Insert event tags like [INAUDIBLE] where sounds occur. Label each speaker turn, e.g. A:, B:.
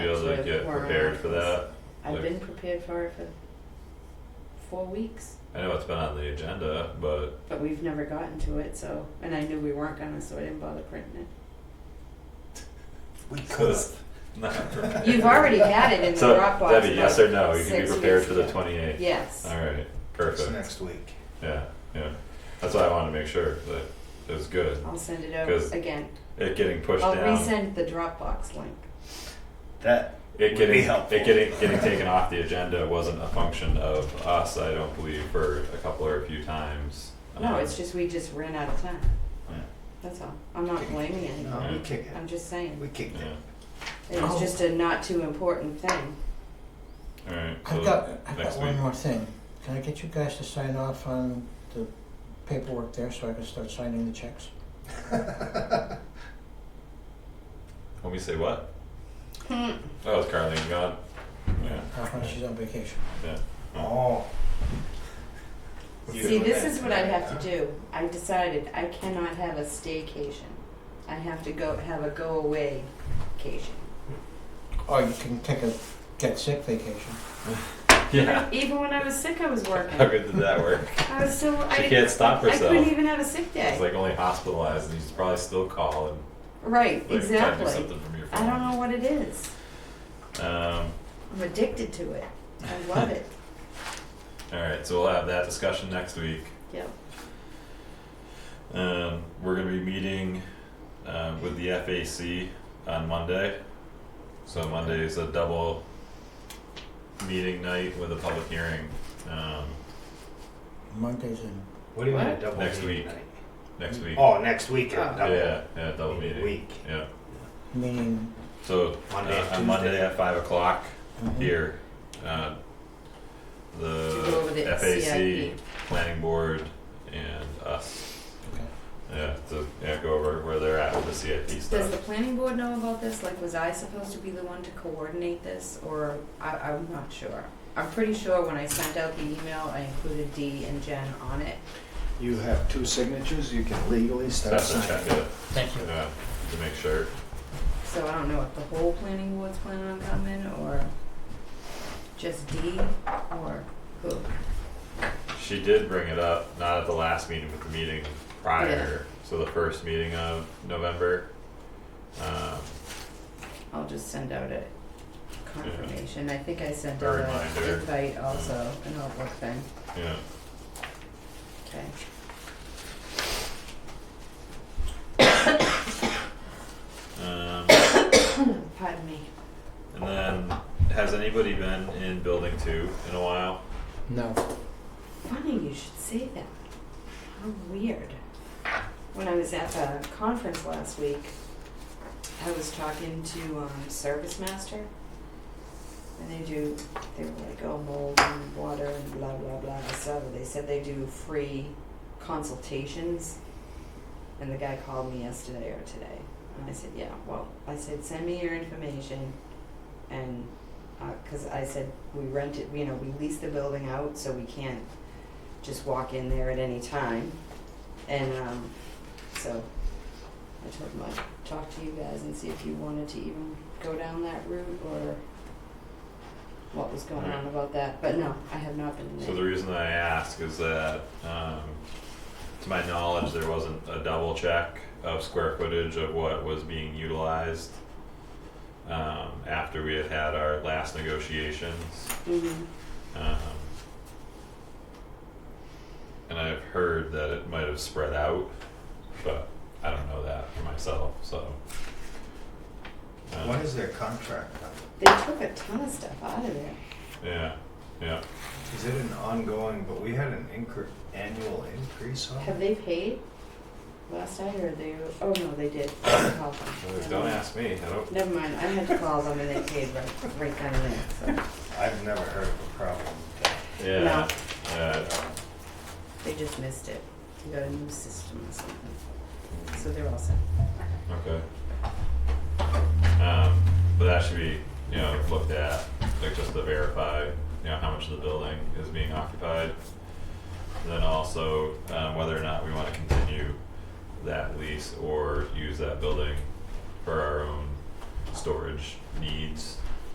A: get
B: Or
A: prepared for that.
B: I've
A: Like-
B: been prepared for it for four weeks,
A: I know it's been on the agenda, but
B: but we've never gotten to it, so, and I knew we weren't gonna, so I didn't bother printing
C: We could
A: because [LAUGHS] not prepared.
B: it. You've already had it in
A: [LAUGHS]
B: the
A: So
B: Dropbox.
A: Debbie, yes
B: about
A: or no? You can be
B: six
A: prepared
B: weeks
A: for the
B: ago.
A: twenty eighth.
B: Yes.
A: All right,
C: it's
A: perfect.
C: next week.
A: Yeah, yeah. That's why I wanted to make sure that it was good.
B: I'll send it over
A: 'Cause
B: again.
A: It getting pushed
B: I'll
A: down.
B: resend the Dropbox link.
C: That
A: it
C: would be
A: getting
C: helpful.
A: it getting getting taken off the agenda wasn't a function of us, I don't believe, for a couple or a few times. Um,
B: No, it's just, we just ran out of time.
A: Yeah.
B: That's all. I'm not blaming
C: No,
B: anyone.
C: we kicked
B: I'm
C: it.
B: just saying,
C: We kicked
A: Yeah.
C: it.
B: it
A: Oh.
B: was just a not too important thing.
A: All right.
D: I've
A: so
D: got, I've
A: next
D: got one
A: week.
D: more thing. Can I get you guys to sign off on the paperwork there so I can start signing the checks?
A: When we say what?
B: Hmm.
A: Oh, it's Carlene gone. Yeah.
D: Uh, she's on vacation.
C: Oh.
B: See, this is what I have to do. I decided I cannot have a staycation. I have to go, have a go away cation.
D: Or you can take a get sick vacation.
A: [LAUGHS] Yeah.
B: Even when I was sick, I was
A: How
B: working.
A: good did that work?
B: I was still,
A: She
B: I,
A: can't stop
B: I
A: herself.
B: couldn't even have a sick
A: She's
B: day.
A: like only hospitalized, and you should probably still call and like
B: Right,
A: try to do
B: exactly.
A: something from your
B: I
A: phone.
B: don't know what it is.
A: Um,
B: I'm addicted to it. I love it. [LAUGHS]
A: all right, so we'll have that discussion next week.
B: Yep.
A: Um, we're gonna be meeting um, with the FAC on Monday. So Monday is a double meeting night with a public hearing um,
D: Monday's in.
C: What do you mean a
B: What?
C: double
A: Next
C: meeting
A: week.
C: night?
A: next week.
C: Oh, next week.
B: Oh.
C: a double
A: Yeah, yeah, double meeting.
C: Week.
A: Yeah.
D: meaning
A: So
C: Monday,
A: uh,
C: and
A: on Monday
C: Tuesday.
A: at five o'clock
D: mhm.
A: here, uh,
B: To go over the
A: the FAC,
B: CIP.
A: planning board, and us.
D: Okay.
A: Yeah, to yeah, go over where they're at with the CIP
B: Does
A: stuff.
B: the planning board know about this? Like, was I supposed to be the one to coordinate this, or I, I'm not sure. I'm pretty sure when I sent out the email, I included Dee and Jen on it.
C: You have two signatures. You can legally
A: So I have to check it,
D: Thank you.
A: yeah, to make sure.
B: So I don't know if the whole planning board's planning on coming, or just Dee, or who.
A: She did bring it up, not at the last meeting, but the meeting prior, so the first meeting of November. Um,
B: I'll just send out a confirmation. I think I sent
A: A
B: out an
A: reminder.
B: invite also, an Outlook thing.
A: yeah,
B: Okay.
A: um,
B: Pardon me.
A: and then, has anybody been in building two in a while?
D: No.
B: Funny you should say that. How weird. When I was at the conference last week, I was talking to um, Service Master, and they do. They were like, "Oh, mold and water and blah blah blah." So they said they do free consultations, and the guy called me yesterday or today, and I said, "Yeah, well," I said, "Send me your information," and because I said we rent it, you know, we lease the building out, so we can't just walk in there at any time. And um, so I told him I'd talk to you guys and see if you wanted to even go down that route or what was going on about that. But no, I have not been in
A: So
B: there.
A: the reason that I ask is that, um, to my knowledge, there wasn't a double check of square footage of what was being utilized. Um, after we had had our last negotiations.
B: Mhm.
A: Um, and I've heard that it might have spread out, but I don't know that for myself, so. um,
C: What is their contract? on?
B: They took a ton of stuff out of there.
A: Yeah, yeah.
C: Is it an ongoing? But we had an incre- annual increase on.
B: Have
C: it?
B: they paid? Last I heard they were, oh no, they did. I had to call them.
A: Well, Don't ask me, I don't,
B: Never mind, I had to call them and they paid right, right then and there, so.
C: I've never heard of a problem. with that.
A: yeah, yeah,
B: They just missed it. They got a new system or something. So they're all set.
A: okay. Um, but that should be, you know, looked at, like just to verify, you know, how much of the building is being occupied. And Then also, um, whether or not we wanna continue that lease or use that building for our own storage needs.